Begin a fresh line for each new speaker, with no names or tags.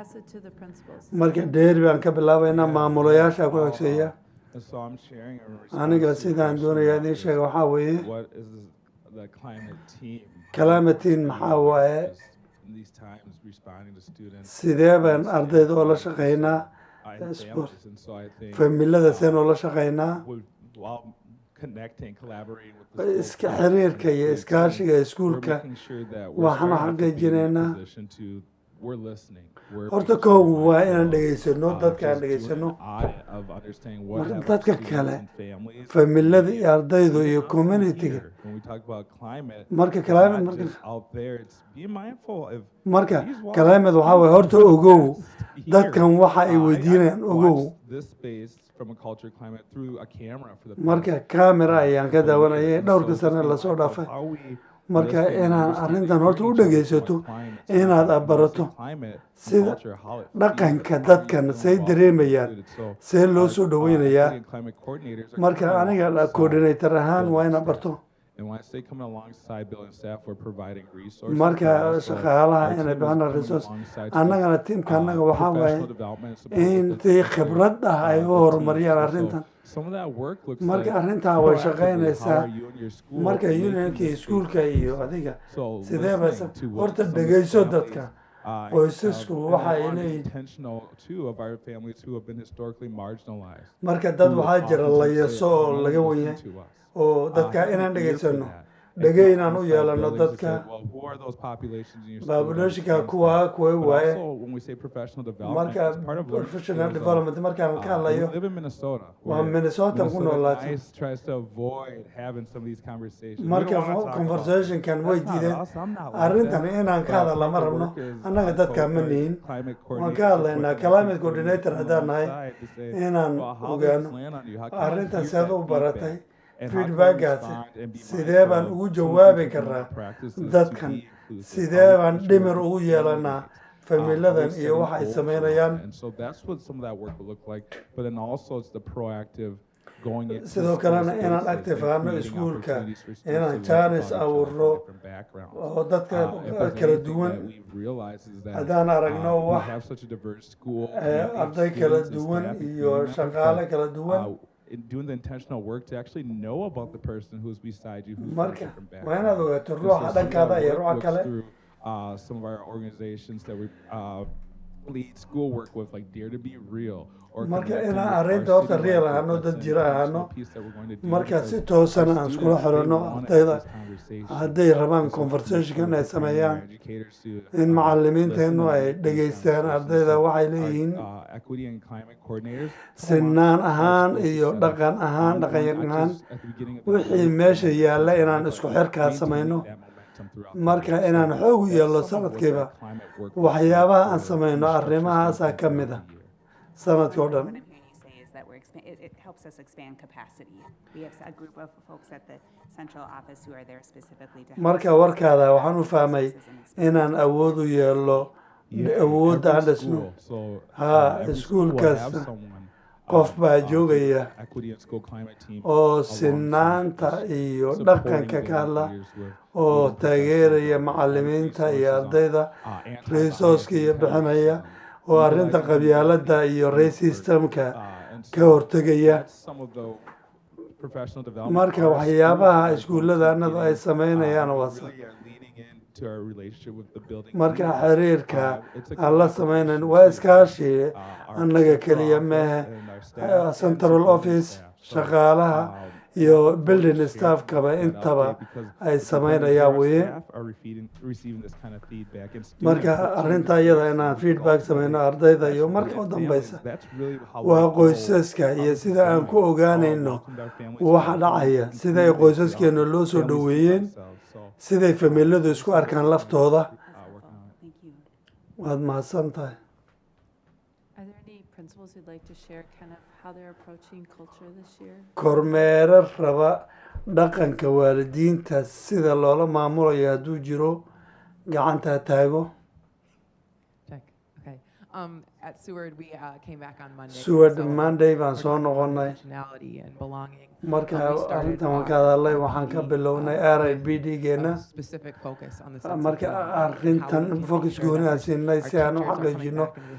Pass it to the principals.
marka dheer baan ka bilaabaynaa maamulayaasha ku
Oh,
hogseeya
And so I'm sharing a response
aniga
to your
sidaan
question
doonayaa
about
idiin
this.
sheega waxaa weeye
What is this- the climate team?
Climate-in maxaa waaye?
Just in These times responding to students.
sidee baan
and
ardayda oola
students
shaqaynaa
and
is
families.
good.
And so I think,
familiyada
um,
seen oola shaqaynaa
we- while connecting, collaborating with the school
iska
team
xiriirka
and
iyo
the team,
iskaashiga
we're
iskuulka
making sure that we're
waxaanu
starting to be in a
xaqiijinaynaa
position to- we're listening. We're
horta
paying
koogu waa
attention.
inaan dhegaysano
Uh,
dadka aan
just do an
dhegaysano
audit of understanding what
Marka
have our
dadka
students
kale,
and families
familiyada iyo
need.
ardaydu iyo
How can
communityga
here, when we talk about climate,
Marka
it's
climate,
not
marka-
just out there, it's be mindful of
marka
these walls
kalaamed waxaa
do
weeye horta
not
ogow
exist
dadkan
here.
waxa ay
Uh, I- I
weydiinayaan ogow
watched this space from a culture climate through a camera for the
marka
past
kamera ayaan ka
couple of
daawanayay
years. And
dhowrka
so
sane
just
lasoo
mindful of
dhaafay
how we
Marka
listen and
inaan
understand
arrintan
and
horta u
encourage each other
dhegaysato,
what climate is
inaad
about, and
barato
see climate and
sida
culture, how it feeds
dhaqanka
us, how
dadkan
we
say
evolve
dareemayaan,
with it. So
see loo
our,
soo
uh,
dhaweynayaa.
city and climate coordinators are coming
marka aniga
alongside
coordinator ahaan
building
waa inaan
staff.
barto
And when I say coming alongside building staff, we're providing resources. but
marka
also our
shaqaalaha
team
inay
is
bixinaan
coming
resource
alongside to
annagana
give,
tiimka
uh,
annaga waxaa waaye
professional development and support
in
with
tii
the-
khibrad ah ay
uh,
u
the
horumariyaan
teams. And so
arrintan
some of that work looks
marka
like
arrintaa way
proactively,
shaqaynaysaa
how are you and your school
marka
making
unionka
this
iskuulka
big
iyo adiga
So
sidee
listening
bas
to what
horta
some of the
dhegayso
families,
dadka
uh,
qoysasku
um, and
waxa
they
ay
are
leeyihiin
intentional too of our families who have been historically marginalized.
marka dad
who
waxaa jira
oftentimes say,
layaso
"Oh,
oo
no one
laga
listened
weynyahay
to us."
oo
Uh,
dadka
so
inaan
we're here for
dhegaysanno
that. And
dhege
so
inaan u
inside
yeelano
buildings, we say,
dadka
"Well, who are those populations in your school that
baabulooshinka
understands
kuwa
that?"
kuwa
But
waaye
also, when we say professional development,
marka
it's part of learning
professional
skills of,
development markaan ka
uh, we
hadlayo
live in Minnesota.
waa
where
Minnesota ku
Minnesota
noolaatay
guys tries to avoid having some of these conversations. We don't
marka
wanna talk about that.
conversationkan way
That's not
diideen
us. I'm not like
arrintan
that.
inaan ka
But
hadalla ma
the
rabno
work is,
annaga
uh,
dadka ma
co-occurring
nihin
climate
waan
coordinators
ka
with
hadlaynaa
the
climate
team
coordinator
coordinators
haddaan
on
nahay
side to say,
inaan
"Well, how does
ogaano
this land on you? How can you
arrintan
hear
sead
that
u baratay
feedback? And how can we
feedbackgaasi
respond and be
sidee
mindful
baan ugu
of some of the
jawaabi
things we want
karaa
practices to
dadkan
be inclusive? How
sidee
do we
baan
ensure
dhimir
that
ugu
we
yeelanaa
communicate?
familadan
um,
iyo waxa ay
sameynayaan
samaynayaan
and so that's what some of that work will look like but then also it's the proactive going into
sidoo
school
kalena inaan
spaces
active
and
ahaano
creating
iskuulka
opportunities for students
inaan
to learn
jaanis
about each other from
abuurro
different backgrounds.
oo dadka
Uh, if
kala
there's anything
duwan
that we've realized is that,
haddaan aragno
uh, we
wax
have such a diverse school
eh,
community of
arday kala
students and
duwan
staff and
iyo
community members
shaqaale
that,
kala duwan
uh, in doing the intentional work to actually know about the person who's beside you who's from a
marka
different
waa inaad
background
ogaato
And so
ruuxa
some of
dhankaada
our
iyo
work
ruuxa
looks
kale
through, uh, some of our organizations that we uh, lead school work with, like Dare to Be Real, or
Marka
connecting
inaan
with
arrinta
our
horta
city
real
life
ahaano,
workers
dad
and
jira
the
ahaano.
national piece that we're going to do
marka
because
si
our
toosana aan iskula
students, they
xidhanno
wanna have
ardayda
this conversation.
hadday rabaan
And so it's
conversationka
important
inay
for primary
sameeyaan
educators to,
in
uh,
macallimiinteennu
listen
ay
and make these
dhegaystaan
conversations.
ardayda
So
waxay
our,
leeyihiin
uh, equity and climate coordinators come on
sinaan
our
ahaan
schools to
iyo
set up
dhaqan ahaan
one-on-one
dhaqanyar ahaan
actions at the beginning of the
wixii
year,
meesha
um,
yaalla inaan
but
isku xirkaa
maintaining
samayno
that momentum throughout the
marka
year. So
inaan xoog u
that's
yeelno
some of what that
sanadkiiba
climate work looks like
waxyaabaha aan
for
samayno
instructors
arrimahaasaa
throughout
ka mid ah
the year.
sanadka oo
So What
dhan
I'm hearing you say is that we're, expa- it, it helps us expand capacity. We have a group of folks at the central office who are there specifically to help.
marka
us
warkaada waxaan u
with
fahmay
resources and experience.
inaan awood u yeelno
Yeah,
awoodda aan
every
dhisno
school. So,
Haa,
uh, every
school
school will have
kasta
someone,
qof
um,
baa
uh,
joogaya
equity and school climate team
oo
alongside
sinaanta
this,
iyo
supporting
dhaqanka
the
ka hadla
leaders with
oo
leading professional
taageeraya
development and
macallimiinta iyo
resources on,
ardayda
uh, anti-bias
resourceka iyo
and
bixinaya
anti-racism,
oo arrinta
utilizing the
qabyaaladda
equity
iyo
and
race
diversity work.
systemka
Uh, and
ka
so
hortegaya
that's some of the professional development
marka
our
waxyaabaha
schools are
iskuullada annadu ay
getting,
sameynayaan
uh,
waa sa
really are leaning into our relationship with the building
marka
leaders.
xiriirka
Uh, it's a
aan la
collaboration
sameynan waa
too. uh, Ah,
iskaashi ah, annaga
annaga
keliya
keliya
mehe
mehe
eh,
central ah, office shaqaalaha iyo building staffkaba intaba ay sameynayaan weye
marka arrinta iyada inaan feedback sameyno ardayda iyo marka u dambeysa waa qoysaska iyo sida aan ku
uh,
ogaanayno waxa dhacaya sida ay qoysaskeena loo soo dhoweeyeen siday familadu isku
uh,
arkaan laftooda
That's helpful. Thank you.
waad mahadsan tahay
Are there any principals who'd like to share kind of how they're approaching culture this year?
kormeero raba dhaqanka waalidiinta sida loola maamulayo hadduu jiro gacanta ha taago
Check. Okay. Um, at Seward, we uh, came back on Monday.
Seward,
so
Monday baan
we're
soo
talking about
noqonnay.
Intentionality and belonging.
marka uh,
Um, we started
arrintan waan
our
ka hadalnay waxaan ka
RIPD,
bilownay
uh,
r i b d
a
geena
Specific focus on the sense of
marka
belonging, how we
arrintan
can make
focus
sure that
gooni
our-
aan siinay
our
si aan u
teachers are coming
xaqiijino
back into the